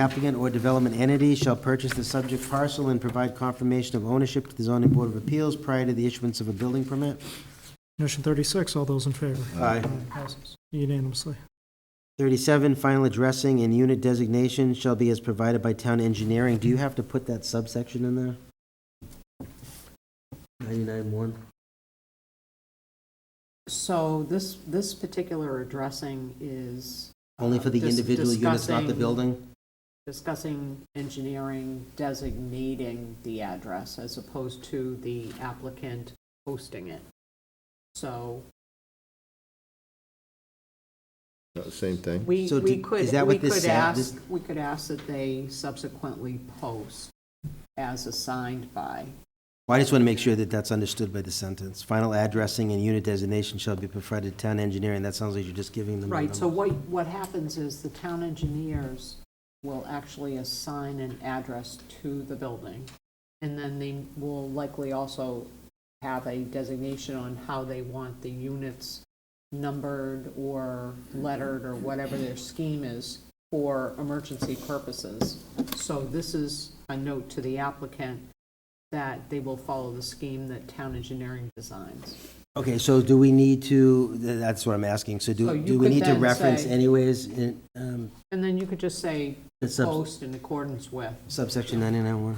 applicant or development entity shall purchase the subject parcel and provide confirmation of ownership to the zoning board of appeals prior to the issuance of a building permit. Condition 36, all those in favor? Aye. Passes unanimously. 37, final addressing and unit designation shall be as provided by town engineering. Do you have to put that subsection in there? 99-1? So this, this particular addressing is. Only for the Dis- individual units, not the discussing- building? Discussing engineering designating the address as opposed to the applicant posting it. So Not the Same thing. we, So we did- is that could, what we this could said? ask, This- we could ask that they subsequently post as assigned by. Well, I just want to make sure that that's understood by the sentence. Final addressing and unit designation shall be provided to town engineering. That sounds like you're just giving them. the Right, so number. what, what happens is the town engineers will actually assign an address to the building, and then they will likely also have a designation on how they want the units numbered or lettered or whatever their scheme is for emergency purposes. So this is a note to the applicant that they will follow the scheme that town engineering designs. Okay, so do we need to, th- that's what I'm asking. So So do, you do we could need to then reference say- anyways in um, And then you could just say, the sub- post in accordance with. subsection 99-1?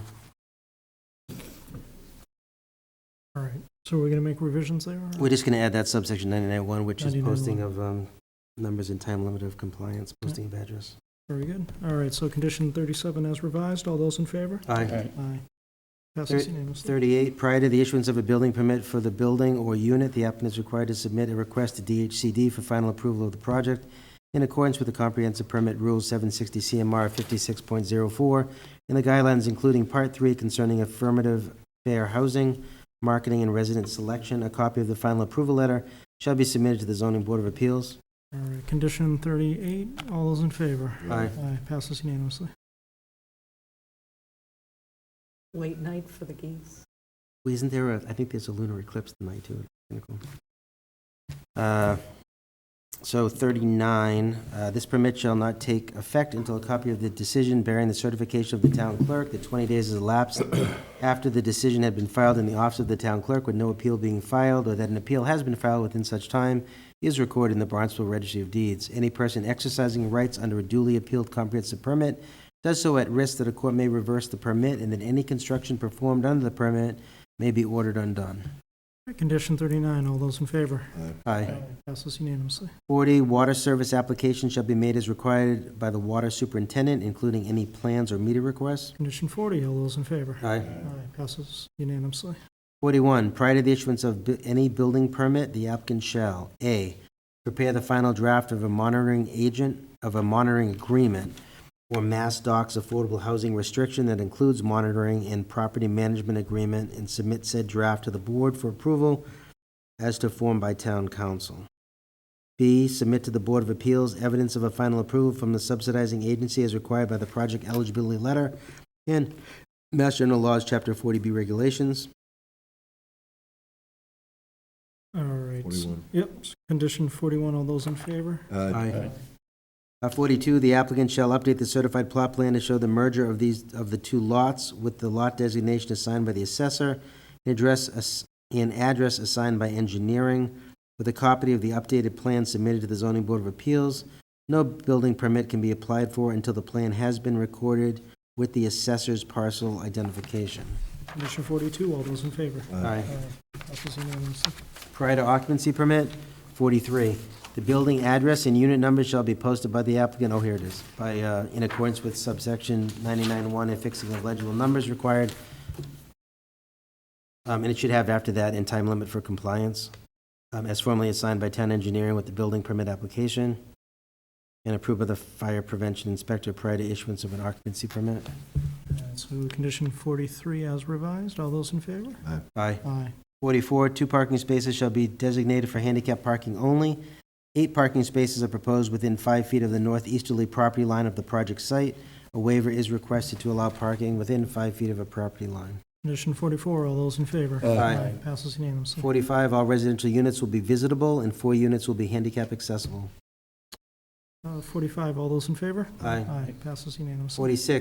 All right, so we're going to make revisions there? or- We're just going to add that subsection 99-1, which is 99-1. posting of um, numbers and time limit of compliance, posting of address. Very good. All right, so condition 37 as revised, all those in favor? Aye. Aye. Passes Thirty- unanimously. 38, prior to the issuance of a building permit for the building or unit, the applicant is required to submit a request to DHCD for final approval of the project in accordance with the comprehensive permit rules 760 CMR 56.04 and the guidelines including Part 3 concerning affirmative fair housing, marketing, and resident selection. A copy of the final approval letter shall be submitted to the zoning board of appeals. All right, condition 38, all those in favor? Aye. Aye, passes unanimously. Late night for the geese. Well, Isn't there a, I think there's a lunar eclipse tonight, too. Kinda cool. Uh, So 39, uh, this permit shall not take effect until a copy of the decision bearing the certification of the town clerk that 20 days has elapsed after the decision had been filed in the office of the town clerk with no appeal being filed, or that an appeal has been filed within such time, is recorded in the Barnstable Registry of Deeds. Any person exercising rights under a duly appealed comprehensive permit does so at risk that a court may reverse the permit, and that any construction performed under the permit may be ordered undone. Condition 39, all those in favor? Aye. Passes unanimously. 40, water service application shall be made as required by the water superintendent, including any plans or meter requests. Condition 40, all those in favor? Aye. Aye, passes unanimously. 41, prior to the issuance of bu- any building permit, the applicant shall, A, prepare the final draft of a monitoring agent, of a monitoring agreement, or Mass Docs Affordable Housing Restriction that includes monitoring and property management agreement, and submit said draft to the board for approval as to form by town council. B, submit to the Board of Appeals evidence of a final approval from the subsidizing agency as required by the project eligibility letter and Mass General Laws, Chapter 40B regulations. All right. 41. Yep, condition 41, all those in favor? Aye. Aye. Uh, 42, the applicant shall update the certified plot plan to show the merger of these, of the two lots with the lot designation assigned by the assessor, and address, ass- and address assigned by engineering, with a copy of the updated plan submitted to the zoning board of appeals. No building permit can be applied for until the plan has been recorded with the assessor's parcel identification. Condition 42, all those in favor? Aye. Passes unanimously. Prior to occupancy permit, 43, the building address and unit number shall be posted by the applicant, oh, here it is, by, uh, in accordance with subsection 99-1 and fixing of legible numbers required. Um, And it should have after that, and time limit for compliance, um, as formally assigned by town engineering with the building permit application, and approved by the fire prevention inspector prior to issuance of an occupancy permit. All right, Uh, So condition 43 as revised, all those in favor? Aye. Aye. 44, two parking spaces shall be designated for handicap parking only. Eight parking spaces are proposed within five feet of the northeasterly property line of the project site. A waiver is requested to allow parking within five feet of a property line. Condition 44, all those in favor? Aye. Passes unanimously. 45, all residential units will be visitable, and four units will be handicap accessible. Uh, 45, all those in favor? Aye. Aye, passes unanimously. 46,